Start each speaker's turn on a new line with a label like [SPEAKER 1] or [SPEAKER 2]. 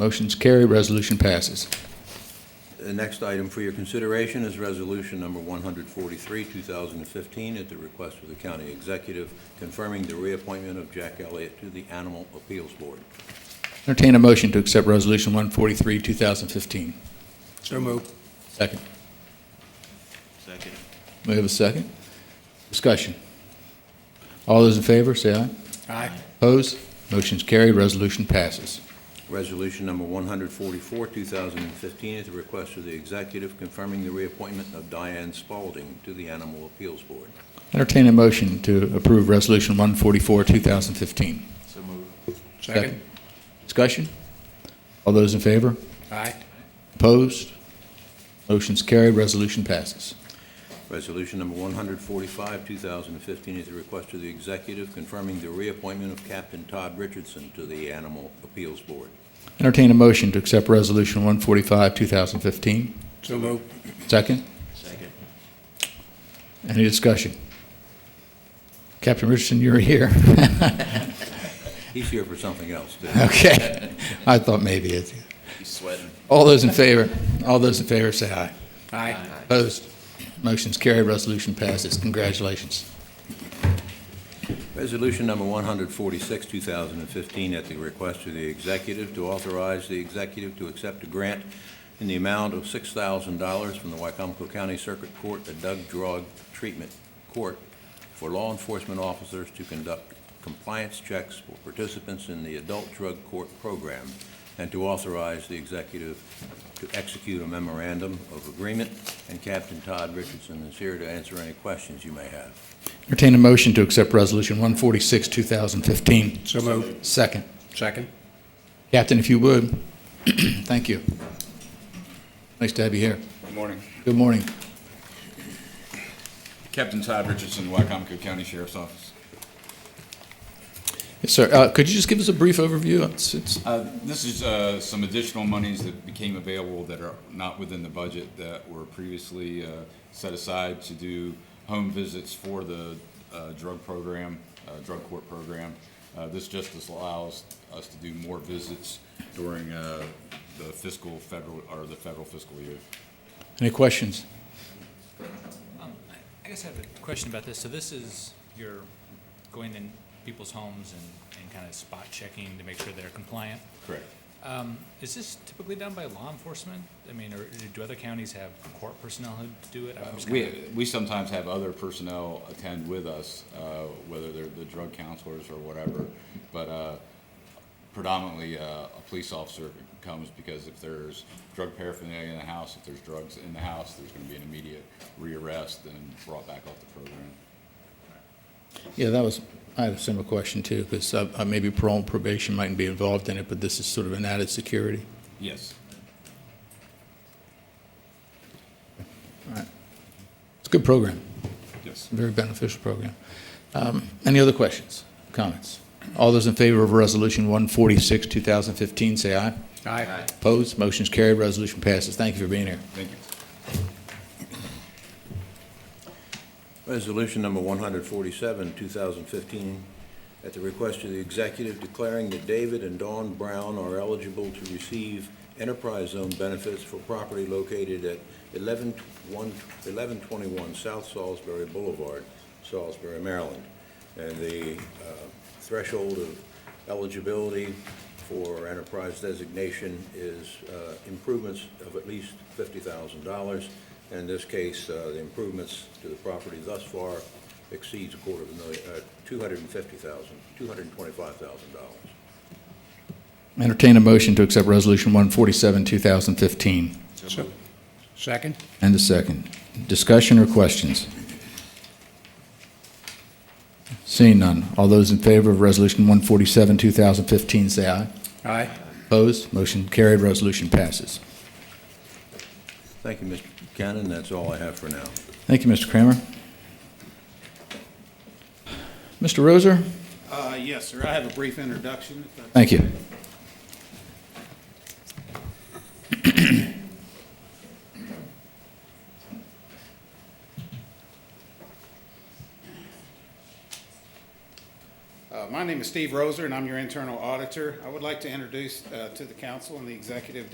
[SPEAKER 1] Motion's carried, resolution passes.
[SPEAKER 2] The next item for your consideration is Resolution Number 143, 2015, at the request of the County Executive confirming the reappointment of Jack Elliott to the Animal Appeals Board.
[SPEAKER 1] Entertain a motion to accept Resolution 143, 2015.
[SPEAKER 3] So moved.
[SPEAKER 1] Second.
[SPEAKER 4] Second.
[SPEAKER 1] We have a second. Discussion. All those in favor, say aye.
[SPEAKER 3] Aye.
[SPEAKER 1] Opposed? Motion's carried, resolution passes.
[SPEAKER 2] Resolution Number 144, 2015, at the request of the Executive confirming the reappointment of Diane Spalding to the Animal Appeals Board.
[SPEAKER 1] Entertain a motion to approve Resolution 144, 2015.
[SPEAKER 4] So move.
[SPEAKER 3] Second.
[SPEAKER 1] Discussion. All those in favor?
[SPEAKER 3] Aye.
[SPEAKER 1] Opposed? Motion's carried, resolution passes.
[SPEAKER 2] Resolution Number 145, 2015, at the request of the Executive confirming the reappointment of Captain Todd Richardson to the Animal Appeals Board.
[SPEAKER 1] Entertain a motion to accept Resolution 145, 2015.
[SPEAKER 3] So moved.
[SPEAKER 1] Second.
[SPEAKER 4] Second.
[SPEAKER 1] Any discussion? Captain Richardson, you're here.
[SPEAKER 2] He's here for something else, too.
[SPEAKER 1] Okay. I thought maybe it's,
[SPEAKER 4] He's sweating.
[SPEAKER 1] all those in favor, all those in favor say aye.
[SPEAKER 3] Aye.
[SPEAKER 1] Opposed? Motion's carried, resolution passes. Congratulations.
[SPEAKER 2] Resolution number 146, 2015, at the request of the executive to authorize the executive to accept a grant in the amount of $6,000 from the Wycomico County Circuit Court, the Doug Drug Treatment Court, for law enforcement officers to conduct compliance checks for participants in the adult drug court program, and to authorize the executive to execute a memorandum of agreement. And Captain Todd Richardson is here to answer any questions you may have.
[SPEAKER 1] Entertain a motion to accept Resolution 146, 2015.
[SPEAKER 3] So moved.
[SPEAKER 1] Second.
[SPEAKER 3] Second.
[SPEAKER 1] Captain, if you would, thank you. Nice to have you here.
[SPEAKER 5] Good morning.
[SPEAKER 1] Good morning.
[SPEAKER 5] Captain Todd Richardson, Wycomico County Sheriff's Office.
[SPEAKER 1] Yes, sir. Uh, Could you just give us a brief overview? It's- it's-
[SPEAKER 5] Uh, This is uh, some additional monies that became available that are not within the budget that were previously uh, set aside to do home visits for the uh, drug program, uh, drug court program. Uh, This just allows us to do more visits during uh, the fiscal federal, or the federal fiscal year.
[SPEAKER 1] Any questions?
[SPEAKER 6] Um, I- I guess I have a question about this. So this is, you're going in people's homes and, and kind of spot checking to make sure they're compliant.
[SPEAKER 5] Correct.
[SPEAKER 6] Um, Is this typically done by law enforcement? I mean, or do other counties have court personnel who do it? I'm just kinda-
[SPEAKER 5] We, we sometimes have other personnel attend with us, uh, whether they're the drug counselors or whatever, but uh, predominantly uh, a police officer comes because if there's drug paraphernalia in the house, if there's drugs in the house, there's going to be an immediate rearrest and brought back off the program.
[SPEAKER 1] Yeah, that was, I had a similar question too, because maybe parole and probation mightn't be involved in it, but this is sort of an added security.
[SPEAKER 5] Yes.
[SPEAKER 1] It's a good program,
[SPEAKER 5] Yes.
[SPEAKER 1] very beneficial program. Um, Any other questions, comments? All those in favor of Resolution 146, 2015, say aye.
[SPEAKER 3] Aye.
[SPEAKER 1] Opposed? Motion's carried, resolution passes. Thank you for being here.
[SPEAKER 5] Thank you.
[SPEAKER 2] Resolution number 147, 2015, at the request of the executive declaring that David and Dawn Brown are eligible to receive enterprise zone benefits for property located at 11 one- 1121 South Salisbury Boulevard, Salisbury, Maryland. And the uh, threshold of eligibility for enterprise designation is uh, improvements of at least $50,000. In this case, uh, the improvements to the property thus far exceeds a quarter of a million, uh, $250,000, $225,000.
[SPEAKER 1] Entertain a motion to accept Resolution 147, 2015.
[SPEAKER 3] So- Second.
[SPEAKER 1] And a second. Discussion or questions? Seeing none. All those in favor of Resolution 147, 2015, say aye.
[SPEAKER 3] Aye.
[SPEAKER 1] Opposed? Motion carried, resolution passes.
[SPEAKER 2] Thank you, Mr. Cannon. That's all I have for now.
[SPEAKER 1] Thank you, Mr. Kramer. Mr. Roser?
[SPEAKER 7] Uh, Yes, sir. I have a brief introduction. if that's
[SPEAKER 1] Thank you.
[SPEAKER 7] okay. Uh, My My name is Steve Roser, and I'm your internal auditor. I would like to introduce uh, to the council and the executive